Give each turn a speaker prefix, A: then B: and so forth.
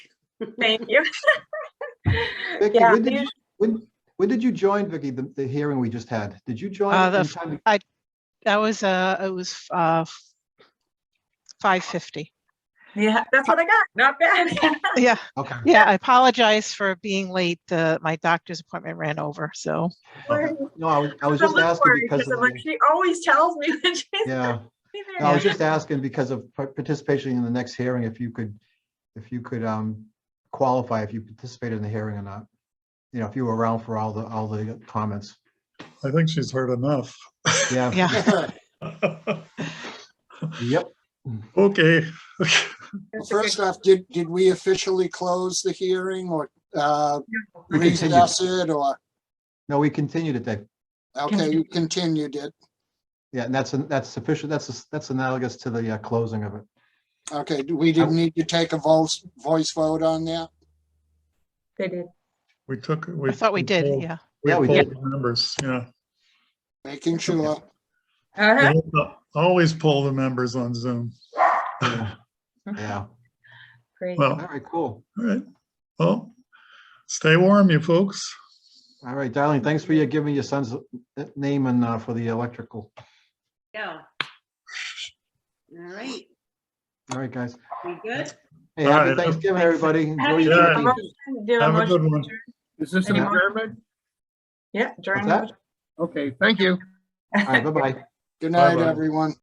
A: Thank you.
B: Vicky,
A: Yeah,
B: when did you,
A: usu-
B: when, when did you join, Vicky, the, the hearing we just had? Did you join?
C: Uh,
B: at
C: the
B: any
C: f-
B: time?
C: That was, uh, it was, uh, five fifty.
A: Yeah, that's what I got. Not bad.
C: Yeah,
B: Okay,
C: yeah, I apologize for being late. Uh, my doctor's appointment ran over, so.
B: okay. No, I was, I was
A: I'm
B: just
A: a little
B: asking
A: worried
B: because, of
A: I'm like,
B: the-
A: She always tells me when she's
B: yeah,
A: leaving.
B: No, I was just asking because of par- participation in the next hearing, if you could, if you could, um, qualify if you participated in the hearing or not. You know, if you were around for all the, all the comments.
D: I think she's heard enough.
B: Yeah.
C: Yeah.
B: Yep.
D: Okay,
E: Well, First off, did, did we officially close the hearing or uh
B: We continued.
E: recess it or,
B: No, we continued it, Dave.
E: okay, you continued it.
B: Yeah, and that's, that's sufficient, that's, that's analogous to the uh, closing of it.
E: Okay, do- we didn't need to take a voice, voice vote on that?
A: They did.
D: we took.
C: I thought we did,
D: polled-
C: yeah.
B: Yeah, we
D: We polled
B: did.
D: the members, yeah.
E: Making sure.
A: Uh-huh.
D: Always poll the members on Zoom.
B: Yeah. Yeah,
A: Great.
D: Well,
B: all
D: all
B: right, cool.
D: right. Well, stay warm, you folks.
B: All right, darling, thanks for your giving your son's uh, name and uh, for the electrical.
F: Go. All right,
B: All right, guys.
F: we good?
B: Hey,
D: All
B: happy
D: right.
B: Thanksgiving, everybody. Enjoy
A: Happy
B: your
D: Yeah.
B: turkey.
A: Thanksgiving. Do a
D: Have a
A: motion
D: good
A: to
D: one.
A: adjourn.
G: Is this an
A: Any more?
G: adjournment?
A: Yeah, during.
B: that?
G: Okay, thank you.
B: All right, bye-bye.
E: Good night,
D: Bye-bye.
E: everyone.